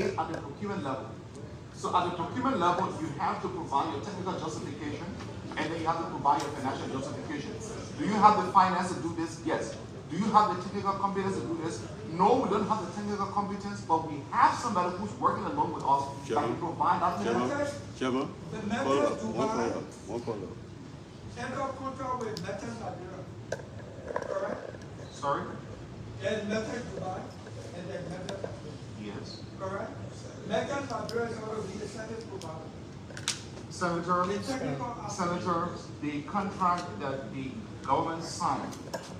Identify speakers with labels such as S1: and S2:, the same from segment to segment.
S1: at the procurement level. So at the procurement level, you have to provide your technical justification, and then you have to provide your financial justification. Do you have the finance to do this? Yes. Do you have the technical competence to do this? No, we don't have the technical competence, but we have somebody who's working along with us that can
S2: Chairman.
S1: provide that. technical-
S2: Chairman, Chairman,
S3: The
S2: follow
S3: members
S2: up,
S3: do
S2: one follow
S3: not
S2: up, one follow up.
S3: enter contract with Metal Nigeria. Correct?
S1: Sorry?
S3: There's Metal Dubai and there's Metal Nigeria.
S1: Yes.
S3: Correct? Metal Nigeria is going to be the second provider.
S1: Senator,
S3: The technical aspect,
S1: Senator, the contract that the government signed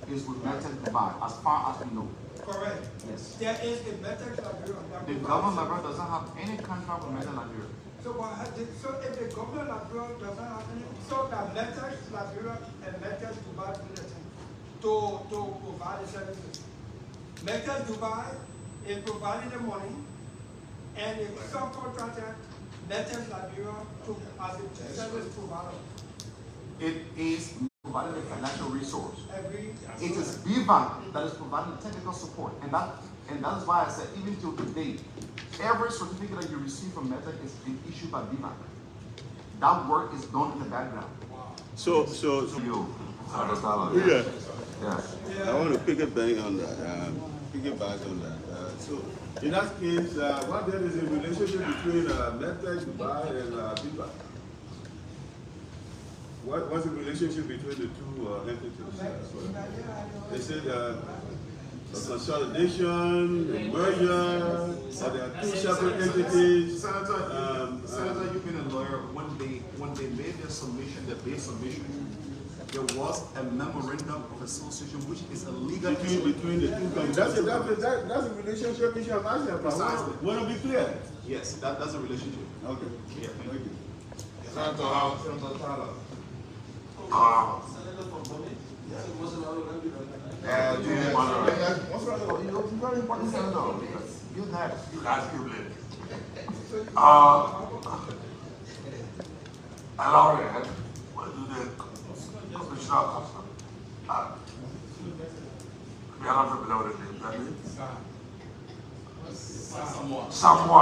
S1: is with Metin Dubai, as far as we know.
S3: correct.
S1: Yes.
S3: There is a Metal Nigeria. that
S1: The
S3: provides
S1: government
S3: service.
S1: level doesn't have any contract with Metin Nigeria.
S3: So what has it, so if the government abroad doesn't have any, so that Metal Nigeria and Metal Dubai do the thing to, to provide the services. Metal Dubai is providing the money and the subcontractor, Metal Nigeria to, as a service provider,
S1: It is providing the financial resource.
S3: agree?
S1: It is BVAC that is providing technical support, and that, and that is why I said even till today, every certificate that you receive from Metin is being issued by BVAC. That work is done in the background.
S2: So, so, so-
S1: You, Senator Saleh.
S2: yeah,
S1: Yes.
S2: I want to pick a bang on that, uh, pick a back on that, uh, so.
S4: In that case, uh, what there is a relationship between uh, Medtech Dubai and uh, BIPA? What, what's the relationship between the two uh, entities? uh, so- They said uh, consolidation, a merger, so there are two separate entities.
S1: Senator,
S4: Um,
S1: you- Senator, you've been a lawyer, when they, when they made their submission, their base submission, there was a memorandum of association, which is a legal
S4: Between,
S1: instrument.
S4: between the two companies. That's a, that's a, that- that's a relationship issue I'm asking about.
S1: Precisely.
S4: Want to be clear?
S1: Yes, that, that's a relationship.
S4: Okay.
S1: Yeah, thank you.
S4: Thank you.
S5: Senator Howe, Senator Tyler. Uh, do you have, what's wrong with you?
S1: It's very important, Senator, you have.
S5: You guys keep late. Uh, Laurie, what do the commissioner come from? We are not familiar with the name, that means. Samoa.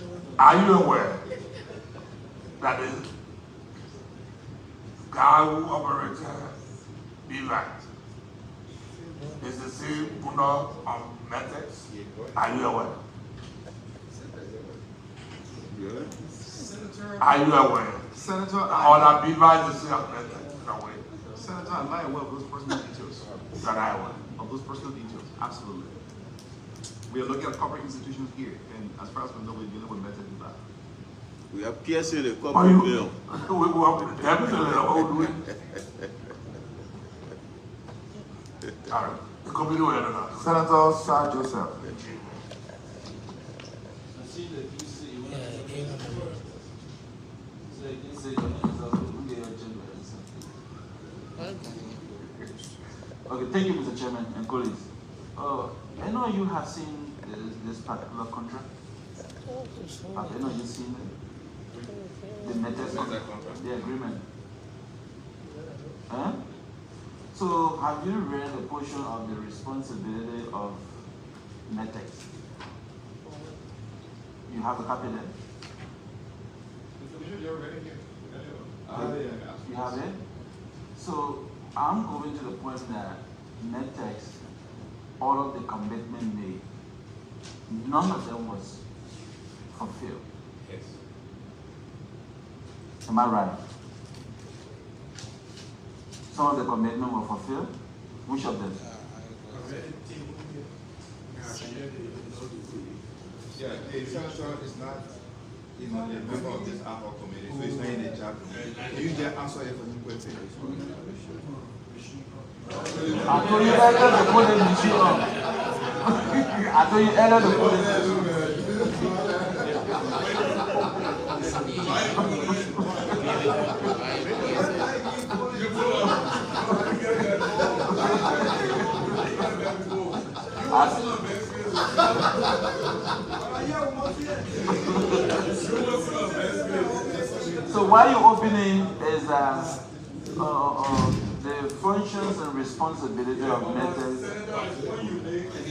S5: okay. Are you aware that the guy who uh, operated Bivac is the same owner of Metex? Are you aware?
S4: Really?
S5: Are you aware?
S1: Senator,
S5: Or
S1: I,
S5: that Bivac is the same as Metex in a way?
S1: Senator, I'm not aware of those personal details,
S5: That I aware.
S1: of those personal details, absolutely. We are looking at corporate institutions here, and as far as we know, we're dealing with Meta Dubai.
S2: We are piercing the
S5: Are
S2: corporate veil.
S5: you? We will have to tell me the old way. All right, the committee will handle that.
S1: Senator Sir Joseph.
S6: Okay, thank you, Mr. Chairman and colleagues. Uh, I know you have seen this, this particular contract. Have any of you seen it? The method of the agreement? Huh? So have you read the portion of the responsibility of Metex? You have a copy there? You have it? So I'm going to the point that Metex, all of the commitment made, none of them was fulfilled. Yes. Am I right? Some of the commitment were fulfilled, which of them?
S7: Yeah, the senator is not, you know, a member of this ad hoc committee, so he's not in the job. Can you just answer your question?
S6: I told you earlier to put the machine on. I told you earlier to put the
S3: Are you a monkey?
S6: So why you opening is uh, uh, uh, the functions and responsibility of matters